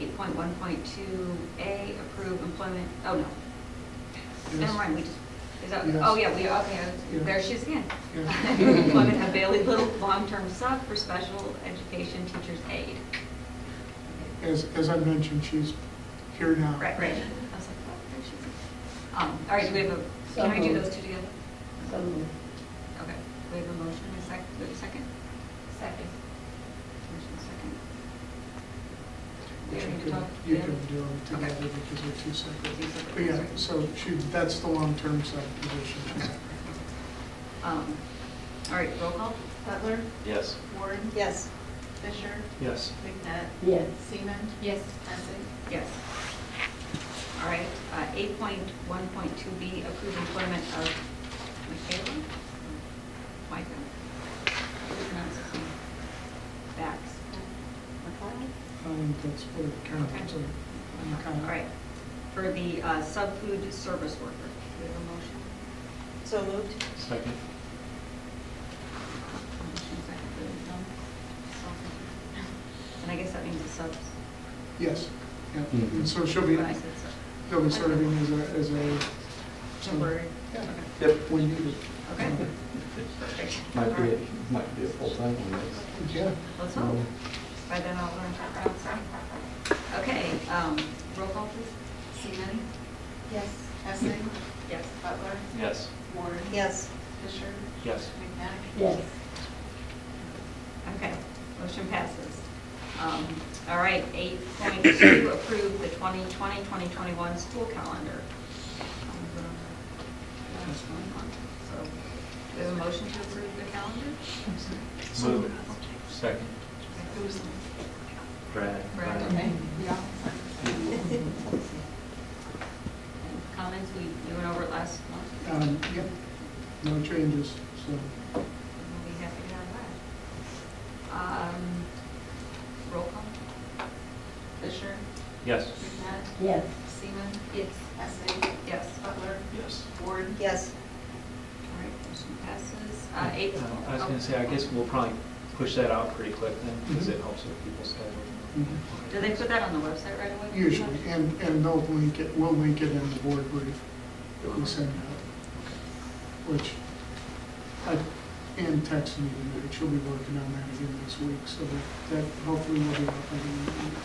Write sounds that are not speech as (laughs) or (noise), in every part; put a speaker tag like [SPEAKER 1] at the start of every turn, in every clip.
[SPEAKER 1] eight point one point two A, approve employment, oh, no. Never mind, we just, is that, oh, yeah, we, okay, there she is again. (laughs) Employment of Bailey Little, long-term sub for special education teacher's aid.
[SPEAKER 2] As, as I mentioned, she's here now.
[SPEAKER 1] Right, right. I was like, what, there she is. Um, all right, do we have a, can I do those two together?
[SPEAKER 3] So moved.
[SPEAKER 1] Okay, we have a motion, a sec, do we have a second? Second. Motion second. We
[SPEAKER 2] Which you
[SPEAKER 1] need to
[SPEAKER 2] can,
[SPEAKER 1] talk-
[SPEAKER 2] you
[SPEAKER 1] yeah?
[SPEAKER 2] can do them
[SPEAKER 1] Okay.
[SPEAKER 2] together because they're two separate.
[SPEAKER 1] Two separate
[SPEAKER 2] But yeah,
[SPEAKER 1] ones,
[SPEAKER 2] so she, that's the long-term sub position she's at.
[SPEAKER 1] Um, all right, roll call?
[SPEAKER 4] Butler,
[SPEAKER 5] Yes.
[SPEAKER 4] Ward,
[SPEAKER 3] Yes.
[SPEAKER 4] Fisher,
[SPEAKER 5] Yes.
[SPEAKER 4] McNutt,
[SPEAKER 3] Yes.
[SPEAKER 4] Seaman,
[SPEAKER 1] Yes.
[SPEAKER 4] Essing.
[SPEAKER 1] Yes. All right, uh, eight point one point two B, approved employment of Michaela? Micah? How do you pronounce his name? Bax?
[SPEAKER 2] I think that's what it counts,
[SPEAKER 1] Okay.
[SPEAKER 2] like, kind
[SPEAKER 1] All
[SPEAKER 2] of.
[SPEAKER 1] right, for the uh, sub-food service worker. Do we have a motion?
[SPEAKER 3] So moved.
[SPEAKER 5] Second.
[SPEAKER 1] Motion second, do we have some? And I guess that means the subs,
[SPEAKER 2] Yes, yeah,
[SPEAKER 5] Mhm.
[SPEAKER 2] and so she'll be,
[SPEAKER 1] when I said sub,
[SPEAKER 2] she'll be serving as a, as a.
[SPEAKER 1] temporary.
[SPEAKER 2] Yeah.
[SPEAKER 1] Okay.
[SPEAKER 5] Yep.
[SPEAKER 2] When needed.
[SPEAKER 1] Okay.
[SPEAKER 2] uh,
[SPEAKER 1] Perfect.
[SPEAKER 5] Might
[SPEAKER 1] All
[SPEAKER 5] be,
[SPEAKER 1] right.
[SPEAKER 5] a- might be a full-time one, yes.
[SPEAKER 2] Yeah.
[SPEAKER 1] Let's hope. By then I'll learn to pronounce it. Okay, um, roll call please. Seaman?
[SPEAKER 4] Yes. Essing,
[SPEAKER 1] Yes.
[SPEAKER 4] Butler,
[SPEAKER 5] Yes.
[SPEAKER 4] Ward.
[SPEAKER 3] Yes.
[SPEAKER 4] Fisher,
[SPEAKER 5] Yes.
[SPEAKER 4] McNutt.
[SPEAKER 3] Yes.
[SPEAKER 1] Okay, motion passes. Um, all right, eight point two, approve the 2020-2021 school calendar. That's one month, So, do we have a motion to approve the calendar?
[SPEAKER 5] Move it. Second.
[SPEAKER 4] Who's,
[SPEAKER 5] Brad.
[SPEAKER 1] Brad, okay. Comments, we, you went over it last month.
[SPEAKER 2] Um, yep, no changes, so.
[SPEAKER 1] We'll be happy to have that. Um, Roll call?
[SPEAKER 4] Fisher,
[SPEAKER 5] Yes.
[SPEAKER 4] McNutt,
[SPEAKER 3] Yes.
[SPEAKER 4] Seaman,
[SPEAKER 1] Yes.
[SPEAKER 4] Essing,
[SPEAKER 1] Yes.
[SPEAKER 4] Butler,
[SPEAKER 5] Yes.
[SPEAKER 4] Ward.
[SPEAKER 3] Yes.
[SPEAKER 1] All right, motion passes. Uh, Eight. Oh.
[SPEAKER 5] Uh, I was gonna say, I guess we'll probably push that out pretty quick then, because it helps with people's
[SPEAKER 2] mhm.
[SPEAKER 5] schedule.
[SPEAKER 1] Mm-hmm. Do they put that on the website right away?
[SPEAKER 2] Usually, and, and they'll link it, we'll link it in the board brief that we send out, which, I, Ann texted me tonight, she'll be working on that again this week, so that- that hopefully will be up and running.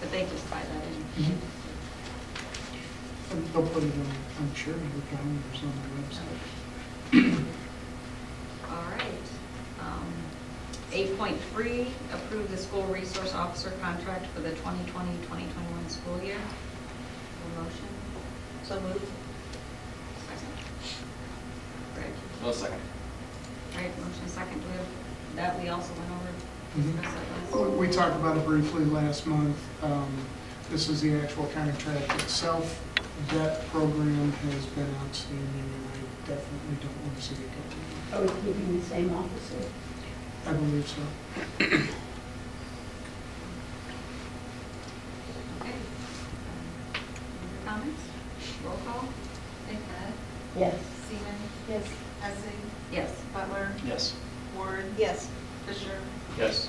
[SPEAKER 1] But they just buy that in.
[SPEAKER 2] Mhm.
[SPEAKER 5] Mm-hmm.
[SPEAKER 2] And They'll put it on, I'm sure, in the calendars on the website.
[SPEAKER 1] All right. um, Eight point three, approve the school resource officer contract for the 2020-2021 school year. A Motion?
[SPEAKER 3] So moved.
[SPEAKER 1] Second. Greg?
[SPEAKER 5] Well, second.
[SPEAKER 1] All right, motion second. Do we have, that we also went over?
[SPEAKER 2] Mhm.
[SPEAKER 1] discussed that last-
[SPEAKER 2] Well, We talked about it briefly last month. Um, This is the actual contract itself. That program has been outstanding, and I definitely don't want to see it go.
[SPEAKER 6] Are we Oh, keeping the same officer?
[SPEAKER 2] I believe so.
[SPEAKER 1] Okay. Um, Any Comments? Roll call?
[SPEAKER 4] McNutt,
[SPEAKER 6] Yes.
[SPEAKER 4] Seaman,
[SPEAKER 6] Yes.
[SPEAKER 4] Essing,
[SPEAKER 1] Yes.
[SPEAKER 4] Butler,
[SPEAKER 5] Yes.
[SPEAKER 4] Ward.
[SPEAKER 3] Yes.
[SPEAKER 4] Fisher,
[SPEAKER 5] Yes.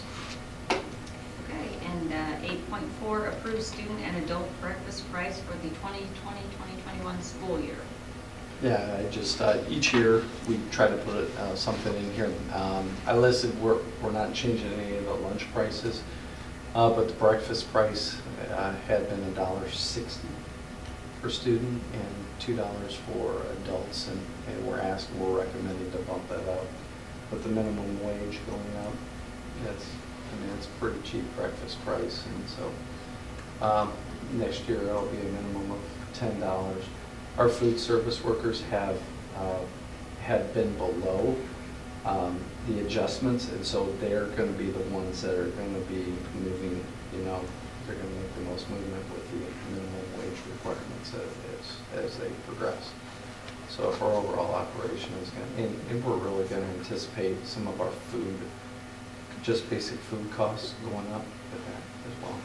[SPEAKER 1] Okay, and uh, eight point four, approve student and adult breakfast price for the 2020-2021 school year.
[SPEAKER 7] Yeah, I just, uh, each year, we try to put uh, something in here. Um, I listed, we're, we're not changing any of the lunch prices, uh, but the breakfast price uh, had been a dollar sixty for student and two dollars for adults, and, and we're asking, we're recommending to bump that up. With the minimum wage going up, that's, I mean, it's a pretty cheap breakfast price, and so, um, next year, it'll be a minimum of ten dollars. Our food service workers have, uh, have been below, um, the adjustments, and so they're gonna be the ones that are gonna be moving, you know, they're gonna make the most movement with the minimum wage requirements as, as they progress. So if our overall operation is gonna, and, and we're really gonna anticipate some of our food, just basic food costs going up with that as well.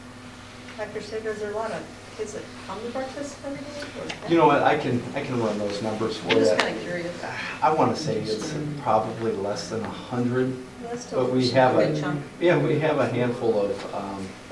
[SPEAKER 3] Dr. Sager, is there a lot of kids that come to breakfast every day? or-
[SPEAKER 7] You know what, I can, I can run those numbers for
[SPEAKER 1] I'm
[SPEAKER 7] you.
[SPEAKER 1] just kind of curious.
[SPEAKER 7] I wanna say it's probably less than a hundred
[SPEAKER 3] That's still
[SPEAKER 7] But we have
[SPEAKER 3] a good
[SPEAKER 7] a,
[SPEAKER 3] chunk.
[SPEAKER 7] yeah, we have a handful of um,